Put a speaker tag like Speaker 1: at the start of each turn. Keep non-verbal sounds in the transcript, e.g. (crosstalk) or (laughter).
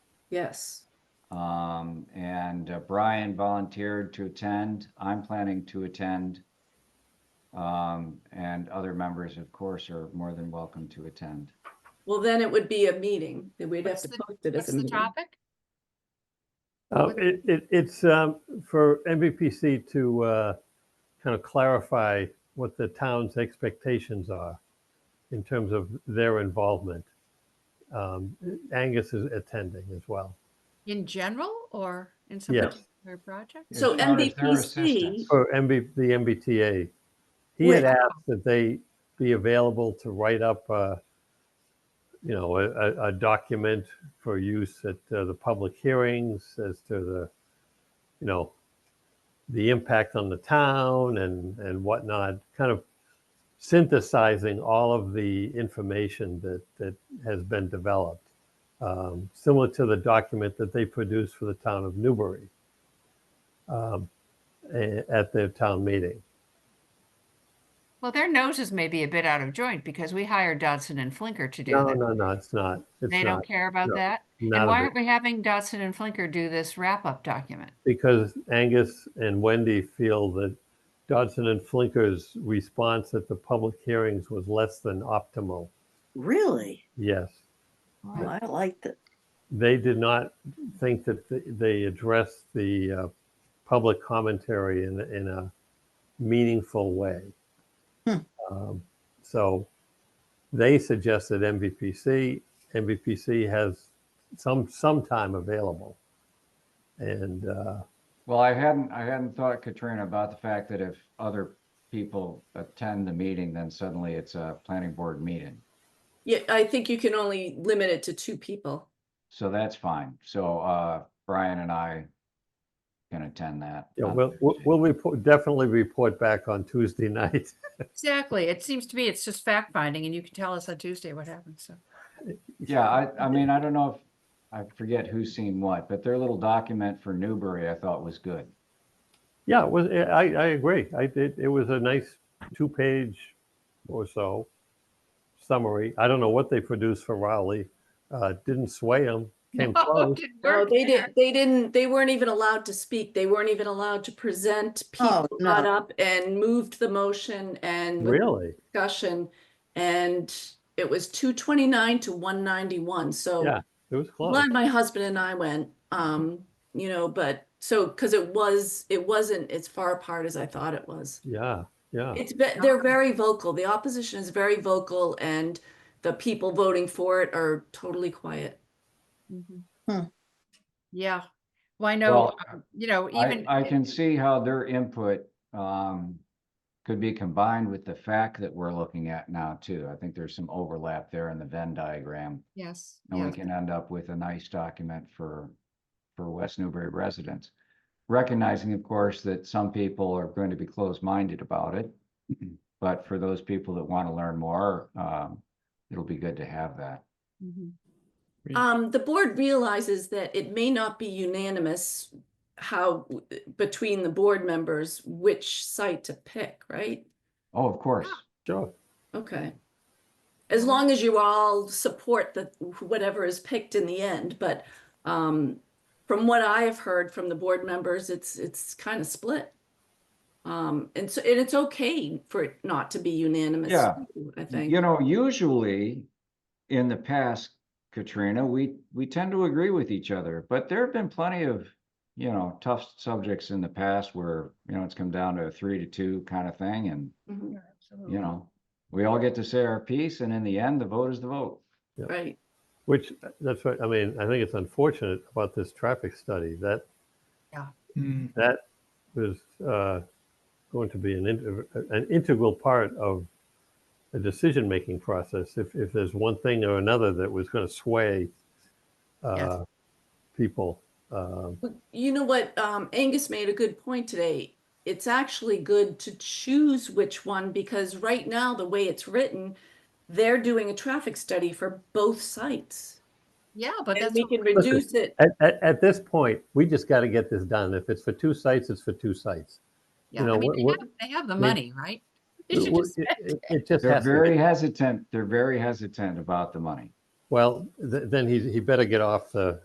Speaker 1: Yes.
Speaker 2: Um, and uh, Brian volunteered to attend. I'm planning to attend. Um, and other members, of course, are more than welcome to attend.
Speaker 1: Well, then it would be a meeting. that We'd have
Speaker 3: What's
Speaker 1: to
Speaker 3: the-
Speaker 1: post it
Speaker 3: What's
Speaker 1: as a
Speaker 3: the
Speaker 1: meeting.
Speaker 3: topic?
Speaker 4: Uh,
Speaker 3: What-
Speaker 4: It, it, it's um, for MVPC to uh, kind of clarify what the town's expectations are in terms of their involvement. Um, Angus is attending as well.
Speaker 3: In general or in some
Speaker 4: Yes.
Speaker 3: particular project?
Speaker 2: As
Speaker 1: So
Speaker 2: far as their
Speaker 1: MVPC
Speaker 2: assistance.
Speaker 4: For MB, the MBTA, he
Speaker 1: Wait.
Speaker 4: had asked that they be available to write up, uh, you know, a, a, a document for use at uh, the public hearings as to the, you know, the impact on the town and and whatnot, kind of synthesizing all of the information that that has been developed, um, similar to the document that they produced for the town of Newbury. Um, a- at their town meeting.
Speaker 3: Well, their noses may be a bit out of joint because we hired Dodson and Flinker to do
Speaker 4: No,
Speaker 3: that.
Speaker 4: no, no, it's not. It's
Speaker 3: They
Speaker 4: not.
Speaker 3: don't care about
Speaker 4: no,
Speaker 3: that. And
Speaker 4: Not
Speaker 3: why
Speaker 4: a bit.
Speaker 3: aren't we having Dodson and Flinker do this wrap-up document?
Speaker 4: (laughs) Because Angus and Wendy feel that Dodson and Flinker's response at the public hearings was less than optimal.
Speaker 5: Really?
Speaker 4: Yes.
Speaker 5: Well, I liked it.
Speaker 4: They did not think that th- they addressed the uh, public commentary in, in a meaningful way.
Speaker 5: Hmm.
Speaker 4: Um, so they suggested MVPC. MVPC has some some time available, and uh,
Speaker 2: Well, I hadn't, I hadn't thought, Katrina, about the fact that if other people attend the meeting, then suddenly it's a planning board meeting.
Speaker 1: Yeah, I think you can only limit it to two people.
Speaker 2: So that's fine. So, uh, Brian and I can attend that. Uh,
Speaker 4: Yeah, we'll, we'll- we'll report, definitely report back on Tuesday (laughs) night.
Speaker 3: Exactly. It seems to me it's just fact finding and you can tell us on Tuesday what happened. So
Speaker 2: Yeah, I, I mean, I don't know if, I forget who's seen what, but their little document for Newbury I thought was good.
Speaker 4: Yeah, it was, I, I agree. I did, it was a nice two-page or so summary. I don't know what they produced for Raleigh. Uh, didn't sway them, came
Speaker 3: (laughs) No,
Speaker 4: close.
Speaker 3: didn't
Speaker 1: No,
Speaker 3: work
Speaker 1: Oh, they
Speaker 3: there.
Speaker 1: didn't, they didn't, they weren't even allowed to speak. They weren't even allowed to present.
Speaker 5: Oh,
Speaker 1: People got
Speaker 5: no.
Speaker 1: up and moved the motion and with
Speaker 4: Really?
Speaker 1: discussion. And it was two twenty-nine to one ninety-one, so.
Speaker 4: Yeah, It was
Speaker 1: I'm
Speaker 4: close.
Speaker 1: Glad my husband and I went, um, you know, but so, cause it was, it wasn't as far apart as I thought it was.
Speaker 4: Yeah, yeah.
Speaker 1: It's, ve-
Speaker 3: Yeah.
Speaker 1: they're very vocal. The opposition is very vocal and the people voting for it are totally quiet.
Speaker 3: Mhm.
Speaker 5: Hmm.
Speaker 3: Yeah. Well, I know,
Speaker 2: Well,
Speaker 3: um, you know,
Speaker 2: I,
Speaker 3: even.
Speaker 2: I can see how their input, um, could be combined with the fact that we're looking at now too. I think there's some overlap there in the Venn diagram.
Speaker 3: Yes.
Speaker 2: And we
Speaker 3: yes.
Speaker 2: can end up with a nice document for, for West Newbury residents. Recognizing, of course, that some people are going to be closed-minded about it. But for those people that want to learn more, um, it'll be good to have that.
Speaker 3: Mhm.
Speaker 1: Um, the board realizes that it may not be unanimous how, between the board members, which site to pick, right?
Speaker 2: Oh, of course.
Speaker 4: Sure.
Speaker 1: Okay. As long as you all support the, whatever is picked in the end, but um, from what I have heard from the board members, it's, it's kind of split. Um, and so, and it's okay for it not to be unanimous.
Speaker 2: Yeah.
Speaker 1: too, I
Speaker 2: You
Speaker 1: think.
Speaker 2: know, usually in the past, Katrina, we, we tend to agree with each other, but there have been plenty of, you know, tough subjects in the past where, you know, it's come down to a three to two kind of thing and
Speaker 1: Mhm,
Speaker 2: you know, we all get to say our piece and in the end, the vote is the vote.
Speaker 1: Right.
Speaker 4: Which, uh, that's what, I mean, I think it's unfortunate about this traffic study. That
Speaker 2: Hmm.
Speaker 4: that was uh, going to be an, in- an integral part of the decision-making process. If, if there's one thing or another that was going to sway uh, people. um,
Speaker 1: But You know what, um, Angus made a good point today. It's actually good to choose which one because right now, the way it's written, they're doing a traffic study for both sites.
Speaker 3: Yeah, but
Speaker 1: And
Speaker 3: that's.
Speaker 1: we
Speaker 3: what
Speaker 1: can
Speaker 3: we're-
Speaker 1: reduce it
Speaker 4: At, at, at this point, we just got to get this done. If it's for two sites, it's for two sites.
Speaker 3: Yeah, I
Speaker 4: know,
Speaker 3: mean,
Speaker 4: what-
Speaker 3: they
Speaker 4: what-
Speaker 3: have, they have the
Speaker 4: we-
Speaker 3: money, right? They should
Speaker 4: It
Speaker 3: just spend
Speaker 4: it- it just
Speaker 2: They're
Speaker 4: has
Speaker 2: very
Speaker 4: to.
Speaker 2: hesitant, they're very hesitant about the money.
Speaker 4: Well, th- then he, he better get off the,